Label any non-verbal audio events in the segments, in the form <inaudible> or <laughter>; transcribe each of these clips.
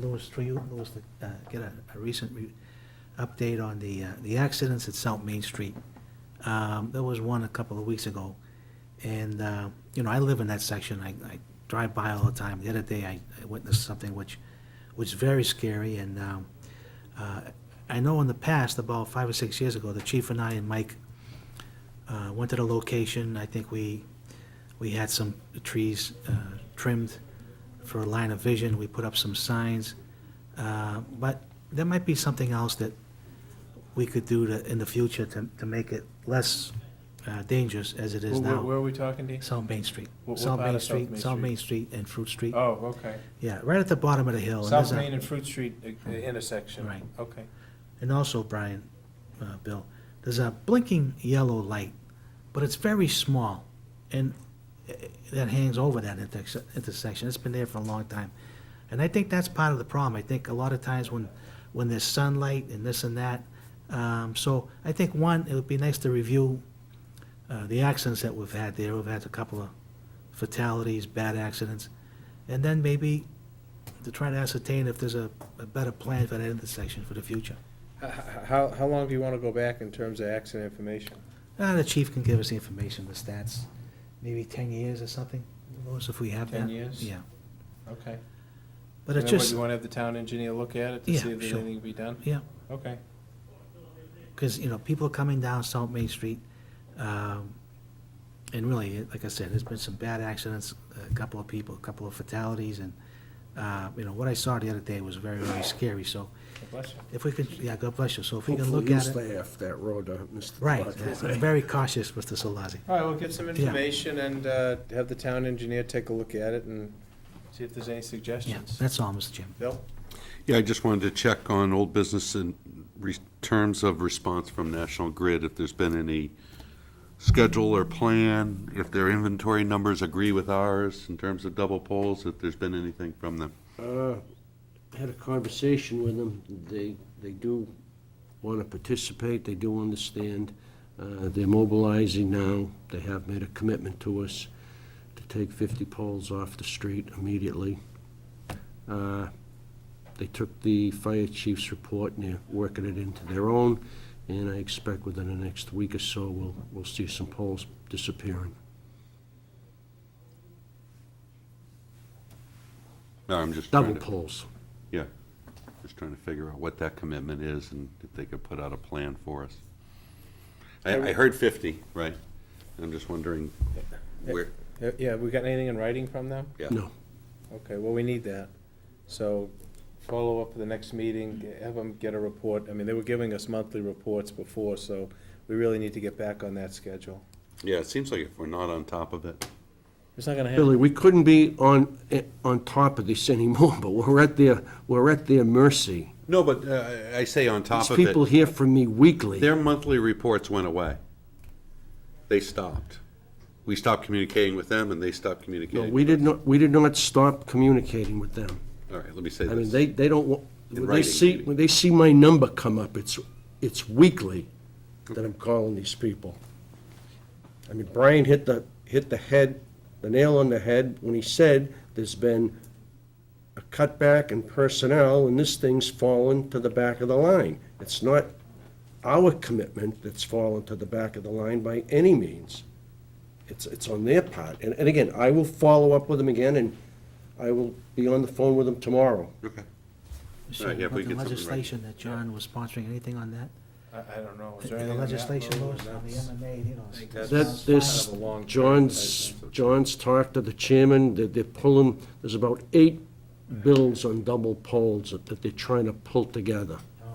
Louis, for you, Louis, to, uh, get a, a recent re- update on the, uh, the accidents at South Main Street. Um, There was one a couple of weeks ago, and, uh, you know, I live in that section, I, I drive by all the time. The other day, I I witnessed something which was very scary, and um, uh, I know in the past, about five or six years ago, the chief and I and Mike uh, went to the location, I think we, we had some trees uh, trimmed for a line of vision, we put up some signs. Uh, But there might be something else that we could do to, in the future to, to make it less uh, dangerous as it is Where- Where, where now. are we talking, Dean? South Main Street. What- what South part Main of South Street, Main South Street? Main Street and Fruit Street. Oh, okay. Yeah, right at the bottom of the hill. and South there's a- Main and Fruit Street uh, uh, intersection. Right. Okay. And also, Brian, uh, Bill, there's a blinking yellow light, but it's very small, and i- i- that hangs over that interse- intersection. It's been there for a long time. And I think that's part of the problem. I think a lot of times when, when there's sunlight and this and that, um, so I think, one, it would be nice to review uh, the accidents that we've had there. We've had a couple of fatalities, bad accidents, and then maybe to try to ascertain if there's a, a better plan for that intersection for the future. H- h- How, how long do you want to go back in terms of accident information? Uh, the chief can give us the information, the stats, maybe ten years or something, Louis, if we have that. 10 years? Yeah, Okay. but And it's then what, just, you want to have the town engineer look at it to Yeah, see if there's sure. anything to be done? yeah, Okay. because, you know, people are coming down South Main Street, um, and really, it- like I said, there's been some bad accidents, a couple of people, a couple of fatalities, and, uh, you know, what I saw the other day was very, very scary, so Bless you. if we could, yeah, God bless you, so if we can Hopefully look at you it. stay off that road, uh, Mr. Right, Bartlett. I'm very cautious, Mr. Solazzi. All right, we'll get some information and uh, have the town engineer take a look at it and, See if there's any Yeah, suggestions. that's all, Mr. Chairman. Bill? Yeah, I just wanted to check on old business in re- terms of response from National Grid, if there's been any schedule or plan, if their inventory numbers agree with ours in terms of double poles, if there's been anything from them. Uh, Had a conversation with them. They, they do want to participate. They do understand. Uh, They're mobilizing now. They have made a commitment to us to take 50 poles off the street immediately. Uh, They took the fire chief's report and they're working it into their own. And I expect within the next week or so, we'll, we'll see some poles disappearing. No, I'm just Double trying to, poles. yeah, just trying to figure out what that commitment is and if they could put out a plan for us. I, I heard 50, right? I'm just wondering where, Uh, Yeah, we got anything in writing from them? yeah. No. Okay, well, we need that. So follow up for the next meeting, have them get a report. I mean, they were giving us monthly reports before, so we really need to get back on that schedule. Yeah, it seems like if we're not on top of it, It's not gonna happen. Billy, we couldn't be on, eh, on top of this <laughs> anymore, but we're at their, we're at their mercy. No, but uh, I- I say on top These of people it, hear from me weekly. their monthly reports went away. They stopped. We stopped communicating with them, and they stopped No, communicating. we did not, we did not stop communicating with them. All right, let me say I mean, this. they, they don't, wa- In when they writing, see, maybe. when they see my number come up, it's, it's weekly that I'm calling these people. I mean, Brian hit the, hit the head, the nail on the head when he said there's been a cutback in personnel and this thing's fallen to the back of the line. It's not our commitment that's fallen to the back of the line by any means. It's, it's on their part. And, and again, I will follow up with them again and I will be on the phone with them tomorrow. Okay. So, Right, yeah, if about we the get something right. legislation that John was sponsoring, anything on that? I, I don't know. Is The there anything on that road? legislation, Louis, on the That's- MMA, you know. I think it's- that's That, this, Kind of a long John's, John's talked to the chairman, that they're pulling, there's about eight bills on double poles that that they're trying to pull together. Oh.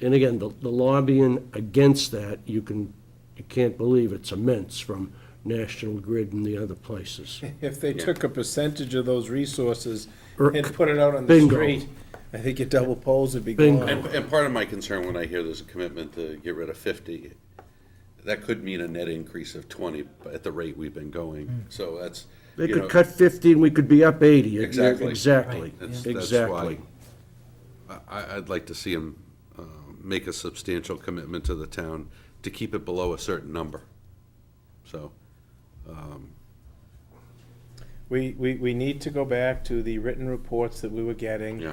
And again, the the lobbying against that, you can, you can't believe it's immense from National Grid and the other <laughs> places. If they took a percentage of those resources Or- and put it out on the Bingo. street, I think your double poles would be Bingo. gone. And, and part of my concern when I hear there's a commitment to get rid of 50, that could mean a net increase of 20 at the rate we've been going. So that's, They you know, could cut 50 and we could be up 80. Exactly. Exactly, That's- that's exactly. why I, I'd like to see them make a substantial commitment to the town to keep it below a certain number. So we, we, we need to go back to the written reports that we were getting. Yeah.